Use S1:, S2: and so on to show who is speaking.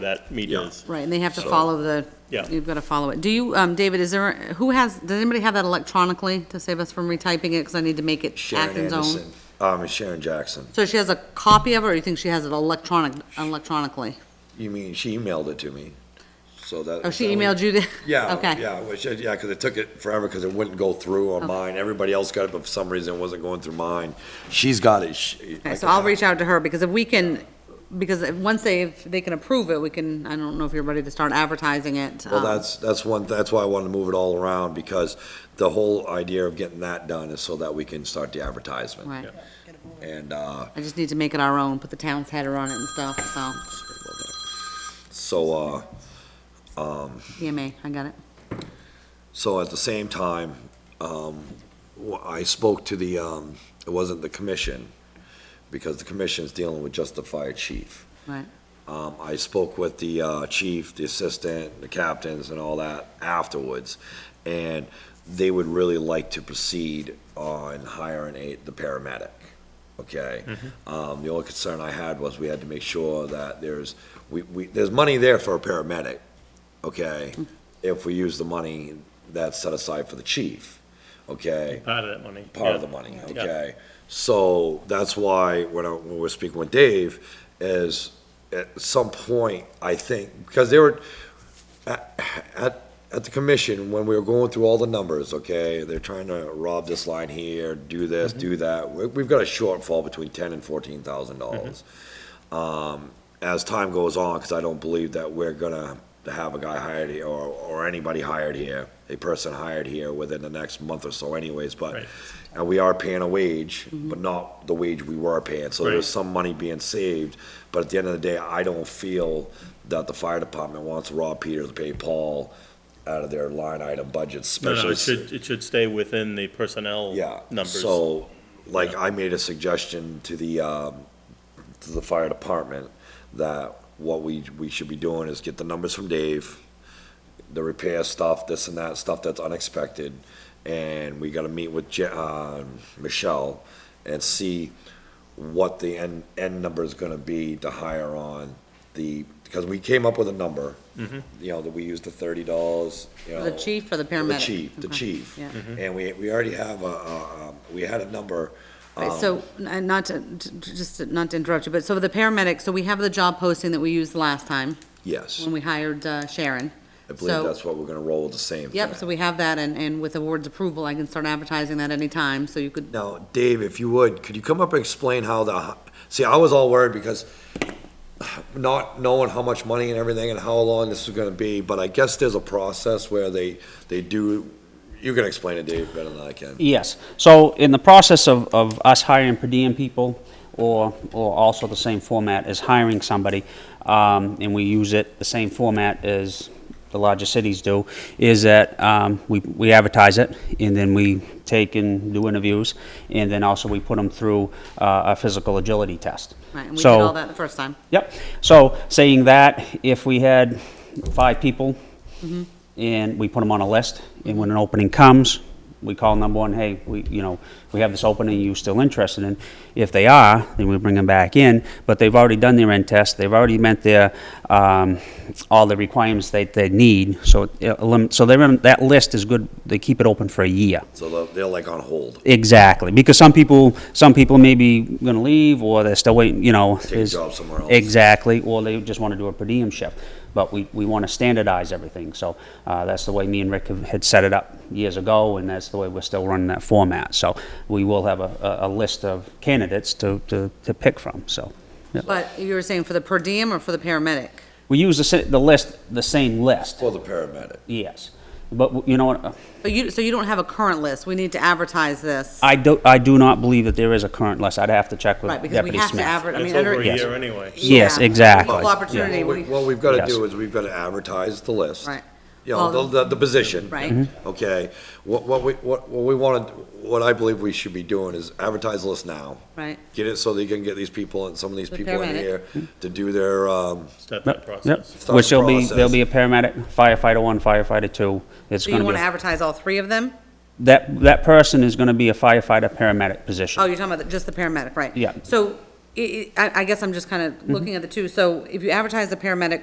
S1: that meet
S2: Yeah.
S1: is.
S3: Right, and they have to
S2: So-
S3: follow the,
S1: Yeah.
S3: you've got to follow it. Do you, um, David, is there, who has, does anybody have that electronically to save us from retyping it, because I need to make it
S2: Sharon
S3: Acton's own?
S2: Anderson, um, Sharon Jackson.
S3: So she has a copy of it, or you think she has it electronic, electronically?
S2: You mean, she emailed it to me, so that.
S3: Oh, she emailed you the?
S2: Yeah,
S3: Okay.
S2: yeah, which, uh, yeah, because it took it forever, because it wouldn't go through on
S3: Okay.
S2: mine. Everybody else got it, but for some reason it wasn't going through mine. She's got it. She-
S3: Okay,
S2: like
S3: so
S2: I
S3: I'll
S2: said,
S3: reach out to her, because if we can, because if- once they, if they can approve it, we can, I don't know if you're ready to start advertising it.
S2: Well,
S3: um,
S2: that's, that's one, that's why I wanted to move it all around, because the whole idea of getting that done is so that we can start the advertisement.
S3: Right,
S2: And, uh,
S3: I just need to make it our own, put the town's header on it and stuff, so,
S2: so, uh,
S3: EMA, I got it.
S2: So at the same time, um, wh- I spoke to the, um, it wasn't the commission, because the commission's dealing with just the fire chief.
S3: Right.
S2: Um, I spoke with the, uh, chief, the assistant, the captains and all that afterwards. And they would really like to proceed on hiring a, the paramedic, okay? Um, the only concern I had was we had to make sure that there's, we, we, there's money there for a paramedic, okay? If we use the money that's set aside for the chief, okay?
S1: Part of that money.
S2: part of the
S1: yeah.
S2: money,
S1: Yeah.
S2: okay? So that's why when I, when we're speaking with Dave, is at some point, I think, because they were, at, at, at the commission, when we were going through all the numbers, okay, they're trying to rob this line here, do this, do
S1: Mm-hmm.
S2: that. We, we've got a shortfall between ten and fourteen thousand dollars. Um, as time goes on, because I don't believe that we're gonna have a guy hired here or, or anybody hired here, a person hired here within the next month or so anyways, but,
S1: Right. Mm-hmm.
S2: and we are paying a wage, but not the wage we were paying, so
S1: Right.
S2: there's some money being saved, but at the end of the day, I don't feel that the fire department wants Rob Peters to pay Paul out of their line item budget,
S1: No, no,
S2: especially.
S1: it should, it should stay within the personnel
S2: Yeah.
S1: numbers.
S2: So, like,
S1: Yeah.
S2: I made a suggestion to the, um, to the fire department that what we, we should be doing is get the numbers from Dave, the repair stuff, this and that, stuff that's unexpected, and we gotta meet with Je- uh, Michelle and see what the end, end number is gonna be to hire on the, because we came up with a number. You know, that we used the thirty dollars, you know.
S3: The chief or the
S2: Oh. The
S3: paramedic?
S2: chief, the
S3: Okay,
S2: chief.
S3: yeah.
S2: And we, we already have a, a, um, we had a number.
S3: Right,
S2: um,
S3: So, and not to, to- just to- not to interrupt you, but so the paramedic, so we have the job posting that we used last time
S2: Yes,
S3: when we hired uh, Sharon.
S2: I believe
S3: so-
S2: that's what we're gonna roll with the same.
S3: Yep,
S2: thing.
S3: so we have that and, and with the board's approval, I can start advertising that anytime, so you could,
S2: Now, Dave, if you would, could you come up and explain how the, see, I was all worried because not knowing how much money and everything and how long this is gonna be, but I guess there's a process where they, they do, you can explain it, Dave, better than I can.
S4: Yes. So in the process of, of us hiring per diem people, or, or also the same format as hiring somebody, um, and we use it the same format as the larger cities do, is that um, we, we advertise it, and then we take and do interviews, and then also we put them through uh, a physical agility test.
S3: right, and we did
S4: So-
S3: all that the first time.
S4: Yep. So saying that, if we had five people and we put them on a list, and when an opening comes, we call number one, hey, we, you know, we have this opening you still interested in. If they are, then we bring them back in, but they've already done their end test, they've already met their, um, all the requirements that they need. So, it elim- so they're in, that list is good, they keep it open for a year.
S2: So they're, they're like on hold,
S4: Exactly, because some people, some people may be going to leave, or they're still waiting, you know. Take
S2: a job somewhere else.
S4: Exactly, or they just want to do a per diem shift. But we, we want to standardize everything, so uh, that's the way me and Rick have- had set it up years ago, and that's the way we're still running that format. So we will have a, a a list of candidates to, to, to pick from, so. yeah.
S3: But you were saying for the per diem or for the paramedic?
S4: We use the, sa- the list, the same list,
S2: for the paramedic.
S4: yes. But w- you know what, uh,
S3: But you, so you don't have a current list, we need to advertise this,
S4: I do, I do not believe that there is a current list, I'd have to check with
S3: right,
S4: Deputy
S3: because
S4: Smith.
S3: we have to adver, I
S1: It's
S3: mean.
S1: over
S3: under-
S1: a year anyway.
S4: Yes,
S3: Yeah.
S4: exactly.
S3: Equal opportunity,
S2: What we-
S3: we,
S2: What we've gotta
S4: Yes.
S2: do is we've gotta advertise the list.
S3: Right.
S2: You know,
S3: Well-
S2: the, the, the position.
S3: Right.
S4: Mm-hmm.
S3: Mhm.
S2: Okay, what, what we, what, what we wanted, what I believe we should be doing is advertise the list now.
S3: right,
S2: Get it so they can get these people and some of these
S3: The
S2: people in
S3: paramedic.
S2: here to do their, um,
S1: Step that
S4: Yep, yep.
S1: process.
S2: Start
S4: Which
S2: the
S4: there'll be, there'll
S2: process.
S4: be a paramedic, firefighter one, firefighter two. It's
S3: so you
S4: gonna be,
S3: wanna
S4: a-
S3: advertise all three of them?
S4: that, that person is gonna be a firefighter, paramedic
S3: Oh,
S4: position.
S3: you're talking about the- just the paramedic, right?
S4: Yeah.
S3: So, i- i- I, I guess I'm just kind of looking at the two, so if you advertise the paramedic